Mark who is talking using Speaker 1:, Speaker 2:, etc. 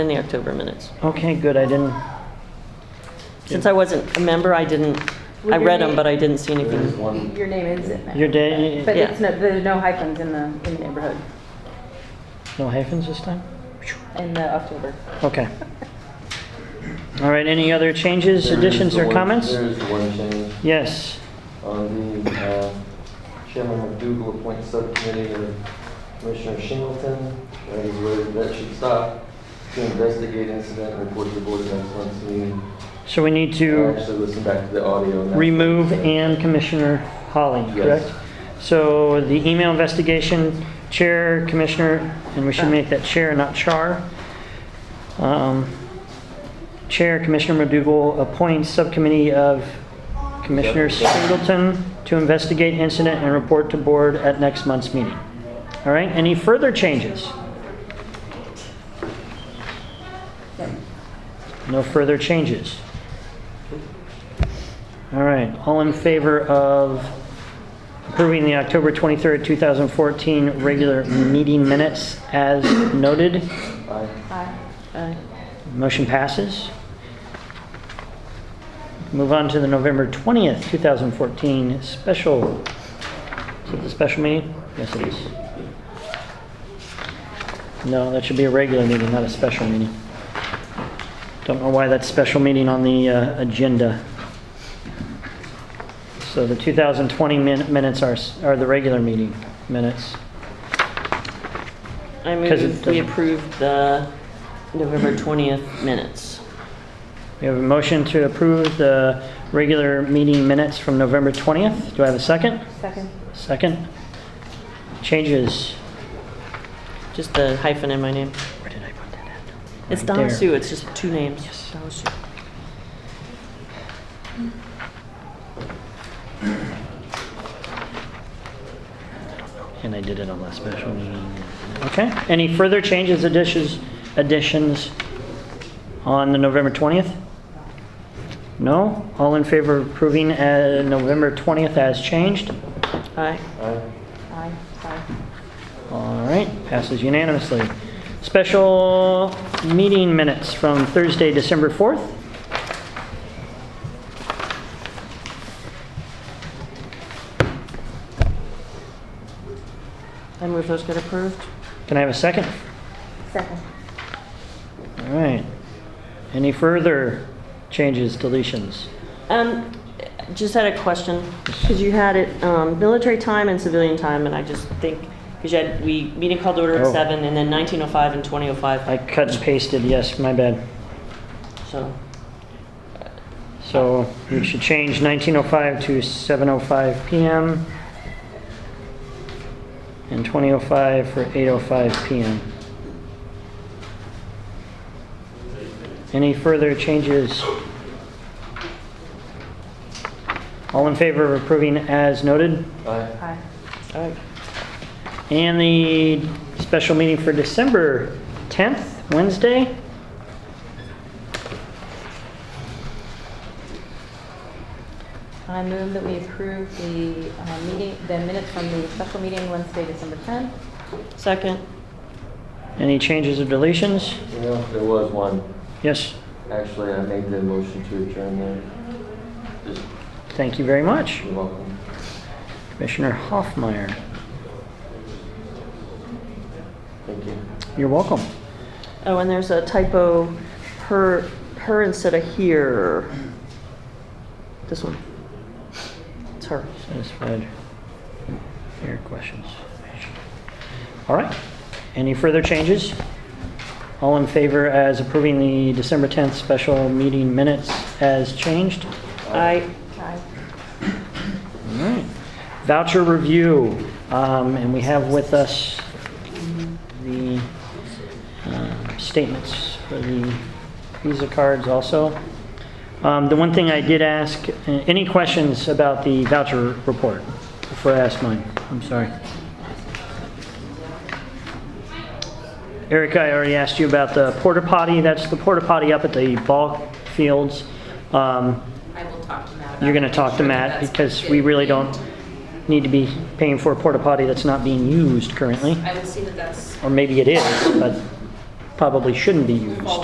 Speaker 1: in the October minutes.
Speaker 2: Okay, good, I didn't,
Speaker 1: Since I wasn't a member, I didn't, I read them, but I didn't see anything.
Speaker 3: Your name is it.
Speaker 2: your day,
Speaker 3: But
Speaker 1: Yeah.
Speaker 3: it's no, there's no hyphens in the, in the neighborhood
Speaker 2: no hyphens this time?
Speaker 3: in the October.
Speaker 2: Okay. All right, any other changes, additions, or comments?
Speaker 4: There is the one change.
Speaker 2: Yes,
Speaker 4: On the uh, Chairman McDougal appoints subcommittee of Commissioner Shingleton. That is where that should stop to investigate incident, and report to the Board of Excellence meeting.
Speaker 2: so we need
Speaker 4: I
Speaker 2: to
Speaker 4: Actually, listen back to the audio. and that-
Speaker 2: remove and Commissioner Holly,
Speaker 4: Yes.
Speaker 2: correct? So the email investigation, Chair, Commissioner, and we should make that Chair, not Char. Um, Chair, Commissioner McDougal appoints subcommittee of Commissioner Singleton to investigate incident and report to board at next month's meeting. All right, any further changes? No further changes. All right, all in favor of approving the October 23rd, 2014 regular meeting minutes as noted?
Speaker 4: Aye.
Speaker 1: Aye.
Speaker 2: Motion passes. Move on to the November 20th, 2014 special. Is it the special meeting? Yes, it is. No, that should be a regular meeting, not a special meeting. Don't know why that's special meeting on the uh, agenda. So the 2020 min- minutes are, s- are the regular meeting minutes.
Speaker 1: I
Speaker 2: 'Cause it
Speaker 1: move we
Speaker 2: doesn't-
Speaker 1: approve the November 20th minutes.
Speaker 2: We have a motion to approve the regular meeting minutes from November 20th. Do I have a second?
Speaker 3: Second.
Speaker 2: Second. Changes.
Speaker 1: Just the hyphen in my name.
Speaker 2: Where did I put that at?
Speaker 1: It's
Speaker 2: Right there.
Speaker 1: Donna Sue, it's just two names. Yes. Donna Sue.
Speaker 2: And I did it on last special meeting. Okay. Any further changes, additions, additions on the November 20th? No? All in favor of approving uh, November 20th as changed?
Speaker 1: Aye.
Speaker 4: Aye.
Speaker 3: Aye, sorry.
Speaker 2: All right, passes unanimously. Special meeting minutes from Thursday, December 4th.
Speaker 1: I move those get approved.
Speaker 2: Can I have a second?
Speaker 3: Second.
Speaker 2: All right. Any further changes, deletions?
Speaker 1: Um, just had a question, because you had it, um, military time and civilian time, and I just think, because you had, we, meeting called to order at
Speaker 2: Oh.
Speaker 1: seven, and then 1905 and 2005,
Speaker 2: I cut and pasted, yes, my bad.
Speaker 1: so.
Speaker 2: So we should change 19:05 to 7:05 PM. And 20:05 for 8:05 PM. Any further changes? All in favor of approving as noted?
Speaker 4: Aye.
Speaker 3: Aye.
Speaker 1: Aye.
Speaker 2: And the special meeting for December 10th, Wednesday?
Speaker 3: I move that we approve the uh, meeting, the minutes from the special meeting Wednesday, December 10th.
Speaker 1: Second.
Speaker 2: Any changes or deletions?
Speaker 4: You know, there was one.
Speaker 2: Yes,
Speaker 4: Actually, I made the motion to adjourn there. Just,
Speaker 2: thank you very much.
Speaker 4: you're welcome.
Speaker 2: Commissioner Hoffmeyer,
Speaker 4: Thank you.
Speaker 2: you're welcome.
Speaker 1: Oh, and there's a typo, her, her instead of here. This one. It's her.
Speaker 2: Satisfied your questions. All right, any further changes? All in favor as approving the December 10th special meeting minutes as changed?
Speaker 1: I,
Speaker 3: Aye.
Speaker 2: All right. Voucher review, um, and we have with us the um, statements for the Visa cards also. Um, The one thing I did ask, uh, any questions about the voucher report before I ask mine? I'm sorry. Erica, I already asked you about the porta potty. That's the porta potty up at the ball fields. Um,
Speaker 5: I will talk to Matt about
Speaker 2: you're going to
Speaker 5: it.
Speaker 2: talk to
Speaker 5: Sure,
Speaker 2: Matt
Speaker 5: that's-
Speaker 2: because we really don't need to be paying for a porta potty that's not being used currently.
Speaker 5: I will see that that's
Speaker 2: Or maybe it is, but probably shouldn't be used.